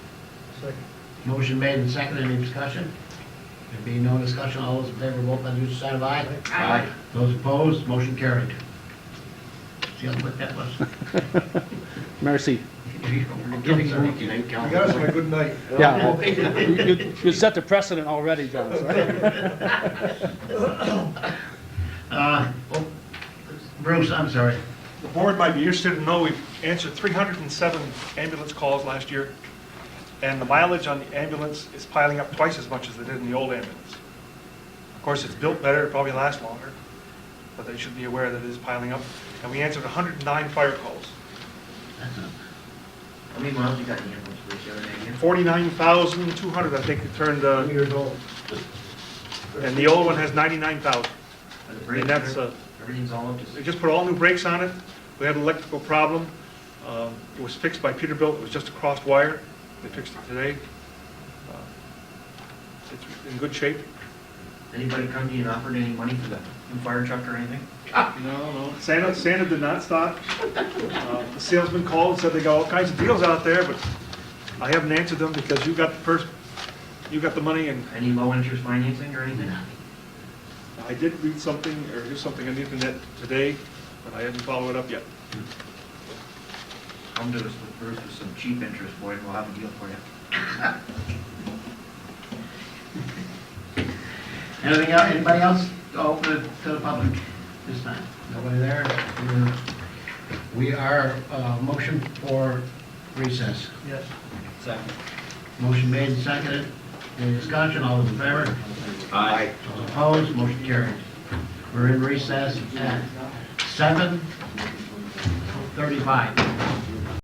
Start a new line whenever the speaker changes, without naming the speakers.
Second.
Motion made and seconded, any discussion? There being no discussion, all those in favor, vote by the usual sign of aye.
Aye.
Those opposed, motion carried. See how quick that was?
Mercy.
We're getting there, you didn't
You
count.
got us on a good night.
Yeah. You- You you set the precedent already, John, sorry.
Uh, oh, Bruce, I'm sorry.
The board might be interested to know, we've answered 307 ambulance calls last year, and the mileage on the ambulance is piling up twice as much as it did in the old ambulance. Of course, it's built better, it probably lasts longer, but they should be aware that it is piling up. And we answered 109 fire calls,
How many miles you got in the ambulance, Bruce, you have an idea?
49,200, I think it turned, uh,
Years old.
and the old one has 99,000.
Are the
And
brakes
that's,
there?
uh,
Everything's all up to...
They just put all new brakes on it. We had an electrical problem. Um, It was fixed by Peterbilt. It was just a crossed wire. They fixed it today. Uh, It's in good shape.
Anybody come to you and offered any money for the new fire truck or anything?
Santa, Santa did not stop. Uh, The salesman called and said they got all kinds of deals out there, but I haven't answered them because you got the first, you got the money and
Any low-interest financing or anything?
I did read something or do something on the internet today, but I didn't follow it up yet.
Come to us with Bruce with some cheap interest, boy, and we'll have a deal for you.
Anything else, anybody else to open it to the public this time? Nobody there? We're- We are, uh, motion for recess.
Yes.
Second.
Motion made and seconded, any discussion, all those in favor? Aye. Those opposed, motion carried. We're in recess at seven thirty-five.